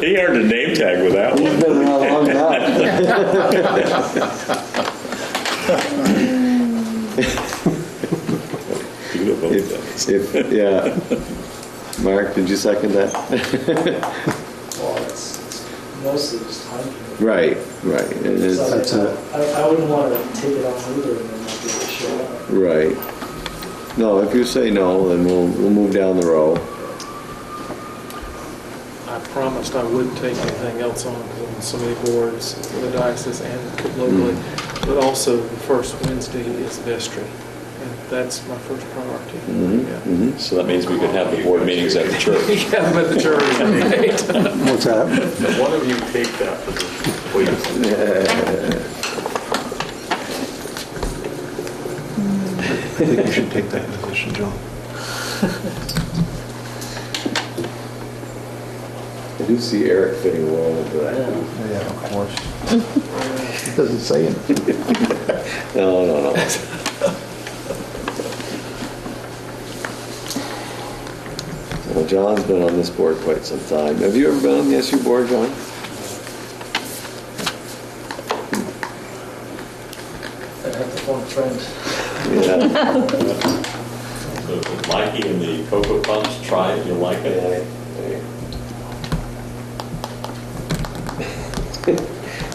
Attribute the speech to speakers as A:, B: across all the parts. A: He earned a name tag with that one.
B: Been around a long time.
A: You could have voted that.
C: If, if, yeah. Mark, did you second that?
D: Well, it's it's mostly just time. commitment.
C: Right, right, it is,
D: So I-
B: That's it.
D: I, I wouldn't want to take it on either and then not be able to show up.
C: right. No, if you say no, then we'll, we'll move down the row.
E: I promised I wouldn't take anything else on, 'cause I'm on so many boards for the diocese and locally, but also the first Wednesday is vestry, and that's my first priority. Yeah.
A: So that means we could have the board meetings at the church.
E: Yeah, but the jury, right?
B: What's that?
F: One of you take that position, please.
G: I think you should take that position, John.
C: I do see Eric fitting well into that.
G: Yeah, of course. It doesn't say anything.
C: No, no, no. Well, John's been on this board quite some time. Have you ever been on the SU board, John?
D: I'd have to phone a friend.
C: Yeah.
F: Mikey and the Cocoa Puffs, try it, you'll like it.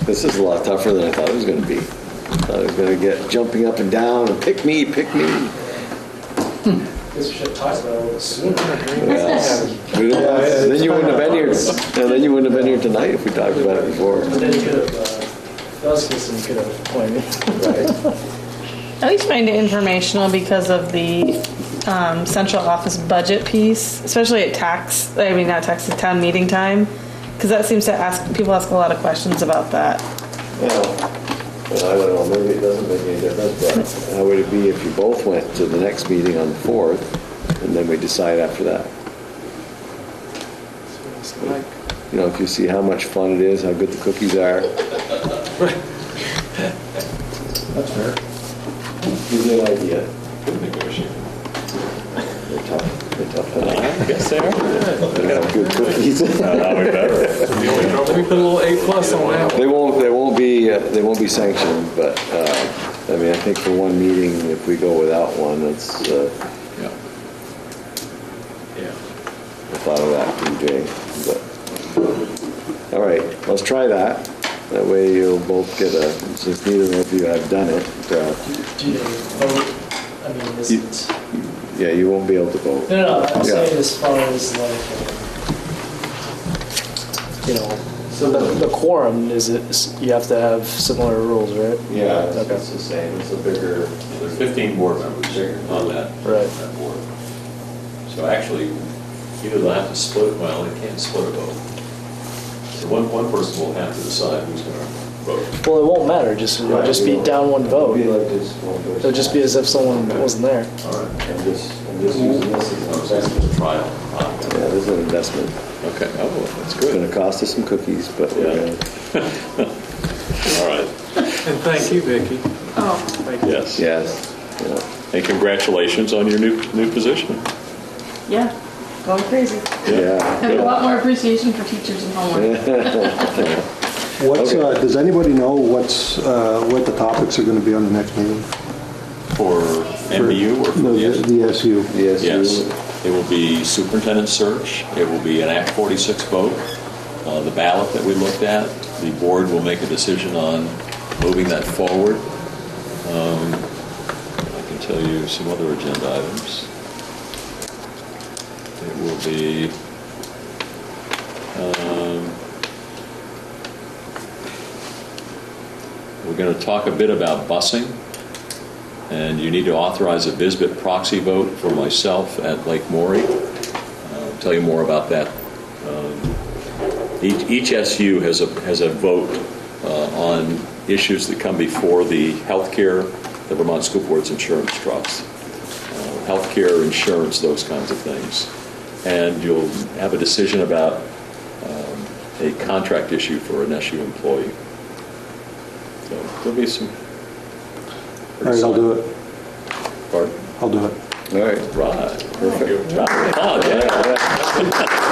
C: This is a lot tougher than I thought it was gonna be. Thought it was gonna get jumping up and down and pick me, pick me.
D: Guess we should have talked about it a little sooner.
C: Yeah. We didn't- Then you wouldn't have been here, yeah, then you wouldn't have been here tonight if we talked about it before.
D: But then you could have, uh, those systems could have appointed.
H: At least find it informational because of the um, central office budget piece, especially at tax, I mean, not tax, at town meeting time. Because that seems to ask, people ask a lot of questions about that.
C: Yeah, But I don't know, maybe it doesn't make any difference, but how would it be if you both went to the next meeting on the 4th, and then we decide after that?
E: So it's like,
C: You know, if you see how much fun it is, how good the cookies are.
G: That's fair.
C: Give me an idea.
F: Good negotiator.
C: They're tough, they're tough, enough.
A: I guess they are.
C: they have good cookies.
A: Now we better.
F: The only trouble
E: We put a little A plus on that one.
C: They won't, they won't be, uh, they won't be sanctioned, but, uh, I mean, I think for one meeting, if we go without one, it's, uh,
F: Yeah. Yeah.
C: I thought of that from Jay, but, all right, let's try that. That way you'll both get a, since neither of you have done it, uh,
D: Do you vote? I mean, is
C: You-
D: it?
C: yeah, you won't be able to vote.
D: No, no, I'm
C: Yeah.
D: saying as far as like, um, you know, so the, the quorum is, is, you have to have similar rules, right? Okay.
C: the same, it's a bigger.
F: There are 15 board members on that,
D: Right.
F: that board. So actually, either they'll have to split, well, they can't split a vote. So one, one person will have to decide who's going to vote.
D: Well, it won't matter, just, it'll just be down one vote. It'll just be as if someone wasn't there.
F: All right.
C: I'm just, I'm just using this
F: So
A: oh,
C: as an
F: it's
C: investment.
F: a trial.
C: Yeah, this is an investment.
A: Okay, oh, that's
C: It's
A: good.
C: gonna cost us some cookies, but uh, we're
A: Yeah.
C: gonna-
A: All right,
E: And thank you, Vicki.
H: Oh.
E: Thank you.
A: yes.
C: yes, yeah.
A: And congratulations on your new, new position.
H: Yeah, going crazy.
C: yeah.
H: Have a lot more appreciation for teachers and homework.
B: What's, uh, does anybody know what's, uh, what the topics are going to be on the next meeting?
A: For MBU or for
B: No,
A: the
B: The the SU.
A: Yes,
C: Yes, you,
A: it will be superintendent search, it will be an Act 46 vote, uh, the ballot that we looked at, the board will make a decision on moving that forward. Um, I can tell you some other agenda items. It will be, um, we're going to talk a bit about busing. And you need to authorize a Bisbit proxy vote for myself at Lake Maury. I'll Tell you more about that. Um, Each each SU has a, has a vote uh, on issues that come before the healthcare, the Vermont School Board's insurance trust, uh, healthcare, insurance, those kinds of things. And you'll have a decision about um, a contract issue for an SU employee. So there'll be some.
B: All right, I'll do it.
A: Pardon?
B: I'll do it.
C: all right.
A: Right. Perfect. Right. Oh, yeah.